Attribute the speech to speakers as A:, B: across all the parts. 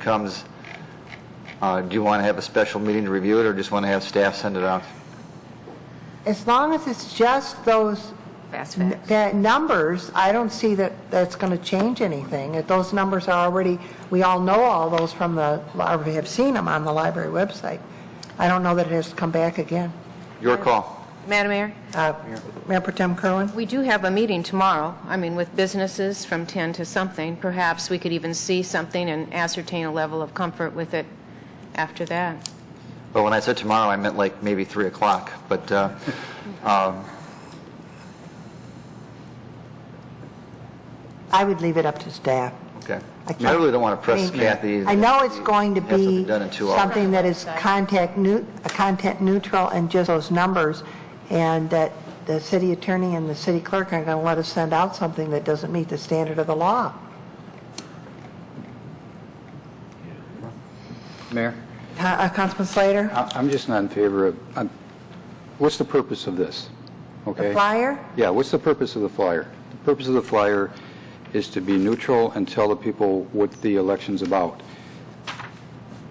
A: becomes, uh, do you want to have a special meeting to review it, or just want to have staff send it out?
B: As long as it's just those,
C: Fast
B: n-
C: facts.
B: the numbers, I don't see that that's going to change anything. If those numbers are already, we all know all those from the, or we have seen them on the library website. I don't know that it has to come back again.
A: Your call.
C: Madam Mayor,
B: Uh, Mayor Pro Tem Kerwin?
C: we do have a meeting tomorrow, I mean, with businesses from 10 to something. Perhaps we could even see something and ascertain a level of comfort with it after that.
A: But when I said tomorrow, I meant like maybe 3 o'clock, but, uh, um,
B: I would leave it up to staff.
A: okay.
B: I
A: I
B: can't-
A: really don't want to press
B: mean,
A: Kathy.
B: I know it's going to
A: Have something
B: be
A: done in two hours.
B: something that is contact new, content neutral and just those numbers, and that the city attorney and the city clerk aren't going to let us send out something that doesn't meet the standard of the law.
D: Mayor?
B: Con- uh, Councilman Slater?
D: I- I'm just not in favor of, I'm- what's the purpose of this?
B: The
D: Okay?
B: flyer?
D: Yeah, what's the purpose of the flyer? The purpose of the flyer is to be neutral and tell the people what the election's about.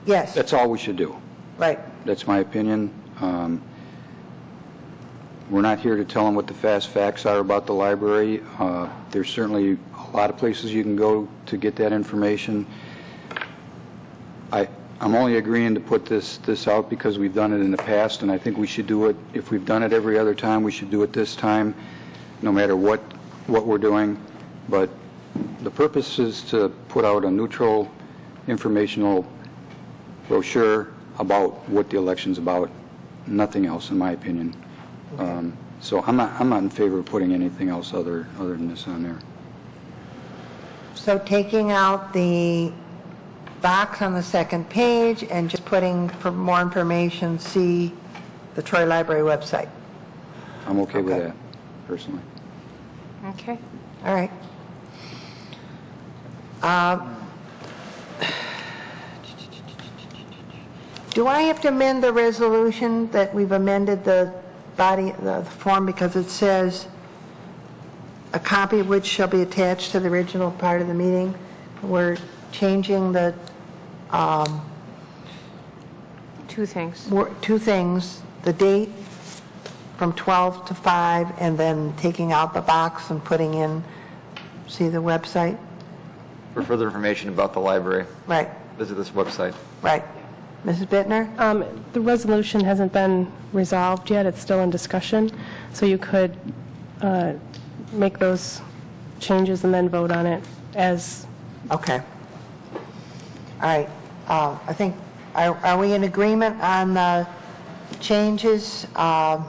B: Yes,
D: That's all we should do.
B: right.
D: That's my opinion. Um, We're not here to tell them what the fast facts are about the library. Uh, There's certainly a lot of places you can go to get that information. I, I'm only agreeing to put this, this out because we've done it in the past, and I think we should do it, if we've done it every other time, we should do it this time, no matter what, what we're doing. But the purpose is to put out a neutral informational brochure about what the election's about, nothing else, in my opinion. Um, So I'm not, I'm not in favor of putting anything else other, other than this on there.
B: So taking out the box on the second page and just putting, for more information, see the Troy Library website.
D: I'm okay with
B: Okay.
D: that, personally.
C: Okay.
B: All right. Um, Do I have to amend the resolution that we've amended the body, the form, because it says, "A copy of which shall be attached to the original part of the meeting"? We're changing the,
C: Two things.
B: wor- two things, the date from 12 to 5, and then taking out the box and putting in, see the website?
A: For further information about the library,
B: Right.
A: visit this website.
B: Right. Mrs. Bittner?
E: Um, The resolution hasn't been resolved yet, it's still in discussion, so you could uh, make those changes and then vote on it as
B: Okay. All right. Uh, I think, are are we in agreement on the changes um,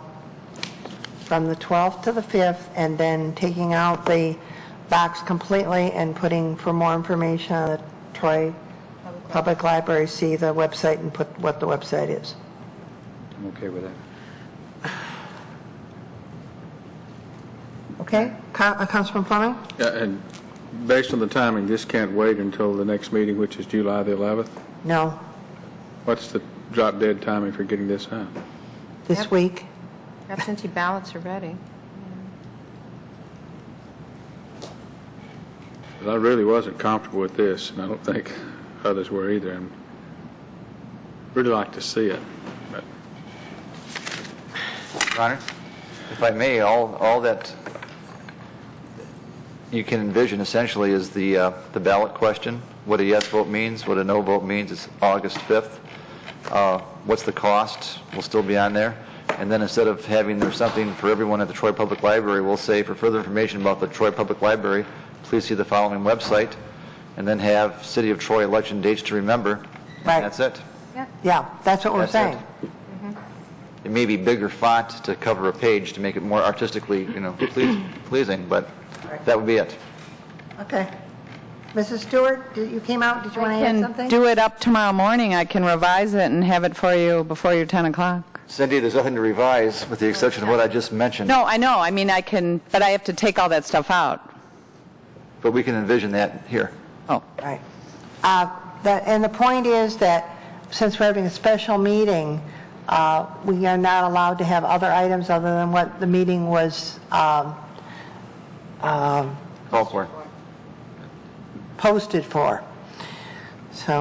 B: from the 12th to the 5th, and then taking out the box completely and putting for more information on the Troy Public Library, see the website and put what the website is?
D: I'm okay with that.
B: Okay? Coun- uh, Councilman Fleming?
F: Yeah, And based on the timing, this can't wait until the next meeting, which is July the 11th.
B: No,
F: What's the drop dead timing for getting this out?
B: this
C: Yep.
B: week?
C: Absentee ballots are ready.
F: But I really wasn't comfortable with this, and I don't think others were either. And Really like to see it, but
A: Your Honor, if I may, all, all that you can envision essentially is the, uh, the ballot question, what a yes vote means, what a no vote means, it's August 5th. Uh, What's the cost, will still be on there. And then instead of having there's something for everyone at the Troy Public Library, we'll say, for further information about the Troy Public Library, please see the following website, and then have City of Troy election dates to remember. And
B: Right.
A: That's it.
B: Yeah, that's what we're
A: That's it.
B: saying.
A: It may be bigger font to cover a page to make it more artistically, you know, pleas- pleasing, but that would be it.
B: Okay. Mrs. Stewart, did- you came out, did you want to add something?
G: can do it up tomorrow morning. I can revise it and have it for you before your 10 o'clock.
A: Cindy, there's nothing to revise with the exception of what I just mentioned,
G: No, I know. I mean, I can, but I have to take all that stuff out.
A: but we can envision that here.
G: Oh.
B: Right. Uh, that- And the point is that since we're having a special meeting, uh, we are not allowed to have other items other than what the meeting was um,
A: Call for it.
B: posted for. So